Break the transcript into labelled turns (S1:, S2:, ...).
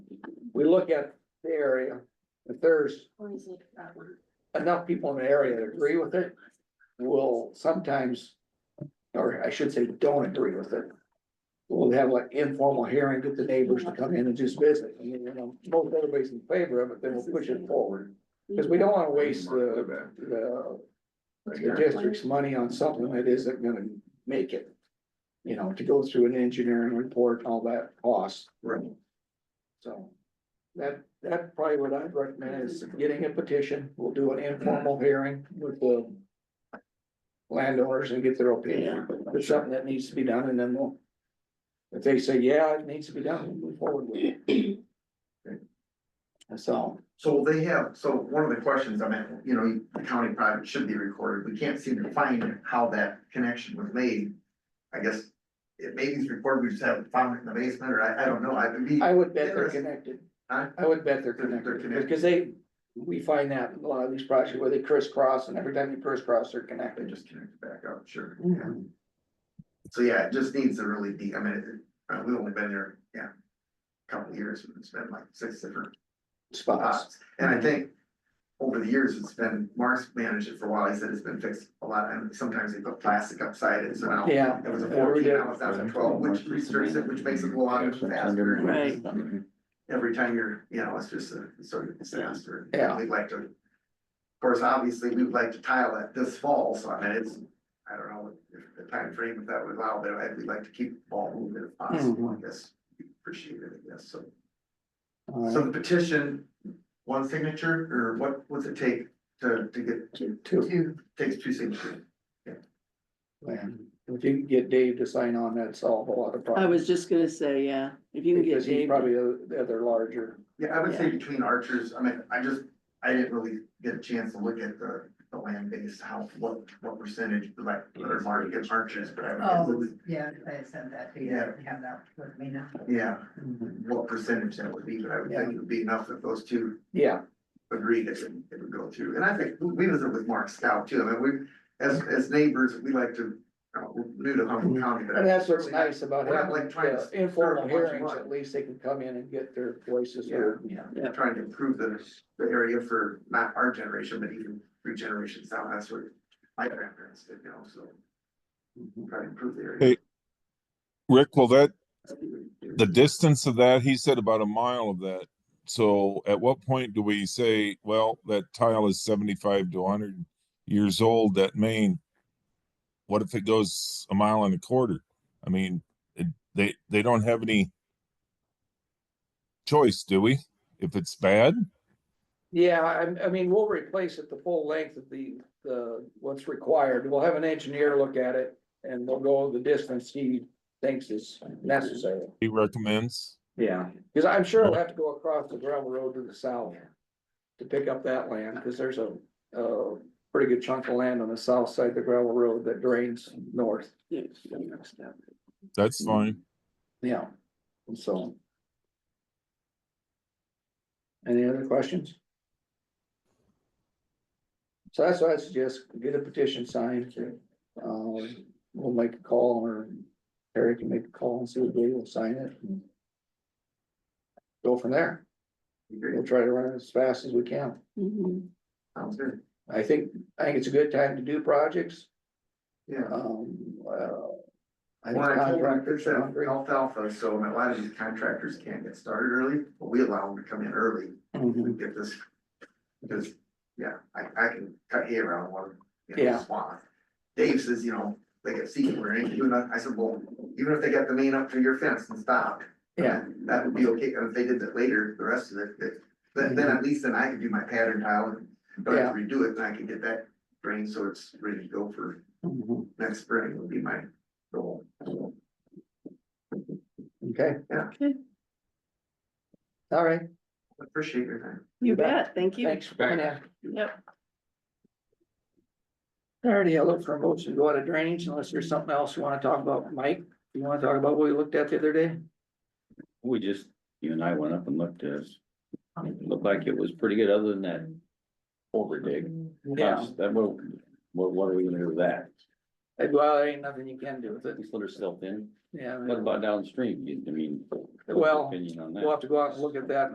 S1: we look at the area, if there's
S2: Always look at that one.
S1: enough people in the area that agree with it, we'll sometimes. Or I should say, don't agree with it. We'll have like informal hearing, get the neighbors to come in and just visit, I mean, you know, most everybody's in favor of it, then we'll push it forward. Cause we don't wanna waste the, the, the district's money on something that isn't gonna make it. You know, to go through an engineering report, all that cost.
S3: Right.
S1: So that, that probably what I'd recommend is getting a petition. We'll do an informal hearing with the landowners and get their opinion. If There's something that needs to be done and then we'll, if they say, yeah, it needs to be done, we'll move forward with it. That's all.
S3: So they have, so one of the questions, I mean, you know, the county private should be recorded, we can't seem to find how that connection was made. I guess it maybe it's recorded, we just haven't found it in the basement, or I, I don't know, I would be,
S1: I would bet they're connected.
S3: Huh?
S1: I would bet they're
S3: They're- they're
S1: connected
S3: connected.
S1: because they, we find that in a lot of these projects where they crisscross and every time you crisscross, they're
S3: they
S1: connected.
S3: just connected back up, sure. yeah. So yeah, it just needs to really be, I mean, it- uh, we've only been there, yeah, a couple of years, it's been like six different
S1: Spots.
S3: spots. And I think over the years, it's been, Mark's managed it for a while, he said it's been fixed a lot, and sometimes they put plastic upside it, so now
S1: Yeah.
S3: it was a
S1: Yeah, we
S3: fourteen,
S1: did.
S3: now it's down to twelve, which restricts it, which makes it go on faster.
S1: Right.
S3: Every time you're, you know, it's just a sort of disaster.
S1: Yeah.
S3: We'd like to, of course, obviously, we'd like to tile it this fall, so I mean, it's, I don't know if the time frame if that would allow, but I- we'd like to keep the ball moving if possible,
S1: Mm-hmm.
S3: I guess. Appreciate it, I guess, so.
S1: All right.
S3: So the petition, one signature, or what, what's it take to, to get,
S1: Two.
S3: takes two signatures?
S1: And If you can get Dave to sign on, that solve a lot of problems.
S4: I was just gonna say, yeah, if you can get
S1: Because he's
S4: Dave,
S1: probably the the other larger.
S3: Yeah, I would say between archers, I mean, I just, I didn't really get a chance to look at the, the land base, how, what, what percentage, like, or market gets archers, but I
S5: Oh,
S3: would.
S5: yeah, I sent that to you,
S3: Yeah.
S5: I have that with me now.
S3: Yeah, what percentage that would be, but I would think it would be enough that those two
S1: Yeah,
S3: agreed it would, it would go through, and I think we visit with Mark Scout too, I mean, we, as, as neighbors, we like to, uh, we're new to Humboldt County, but. I
S1: and that's what's
S3: We're not-
S1: nice about
S3: we're not,
S1: having
S3: like, trying to
S1: the informal
S3: serve a bunch of
S1: hearings,
S3: money.
S1: at least they can come in and get their voices
S3: Yeah.
S1: heard.
S3: I'm trying to improve the, the area for not our generation, but even three generations down, that's what my grandparents did, you know, so. Try to improve the area.
S6: Hey. Rick, well, that, the distance of that, he said about a mile of that. So at what point do we say, well, that tile is seventy-five to hundred years old, that main? What if it goes a mile and a quarter? I mean, it- they, they don't have any choice, do we? If it's bad?
S1: Yeah, I, I mean, we'll replace it the full length of the, the, what's required. We'll have an engineer look at it and we'll go the distance he thinks is necessary.
S6: He recommends.
S1: Yeah. Cause I'm sure we'll have to go across the gravel road to the south to pick up that land, cause there's a, a pretty good chunk of land on the south side of the gravel road that drains north.
S4: yeah, next up.
S6: That's fine.
S1: Yeah, and so. Any other questions? So that's why I suggest get a petition signed, um, we'll make a call or Terry can make a call and see if they will sign it. and Go from there, we'll
S3: Great,
S1: try to run it as fast as we can.
S4: Mhm.
S1: Mm-hmm.
S3: Sounds good,
S1: I think, I think it's a good time to do projects,
S3: yeah.
S1: um, uh. I think
S3: Well, I told them,
S1: contractors
S3: it's
S1: are
S3: uh,
S1: hungry.
S3: alfalfa, so a lot of these contractors can't get started early, but we allow them to come in early,
S1: Mhm.
S3: and get this. Because, yeah, I, I can cut hair on one, you know,
S1: Yeah.
S3: swath. Dave says, you know, they get seated or anything, and I I said, well, even if they got the main up to your fence and stopped.
S1: Yeah,
S3: That would be okay, and if they did that later, the rest of it, that- then, then at least then I could do my pattern tile and. Don't have to redo it, and I can get that drain, so it's ready to go for
S1: Mhm.
S3: next spring would be my goal.
S1: okay,
S4: Okay,
S1: all right.
S3: Appreciate your time.
S4: you
S1: bet.
S4: bet, thank you.
S1: Thanks for coming in.
S4: Yep.
S1: Alrighty, I look for a motion to go out of drainage unless there's something else you wanna talk about, Mike, you wanna talk about what we looked at the other day?
S7: We just, you and I went up and looked at it. It Looked like it was pretty good, other than that over dig. That, what, what, what are we gonna do with that?
S1: Uh, Well, there ain't nothing you can do with it,
S7: At least let herself in.
S1: yeah,
S7: What about downstream? You- I mean. what's your
S1: Well,
S7: Opinion on that.
S1: we'll have to go out and look at that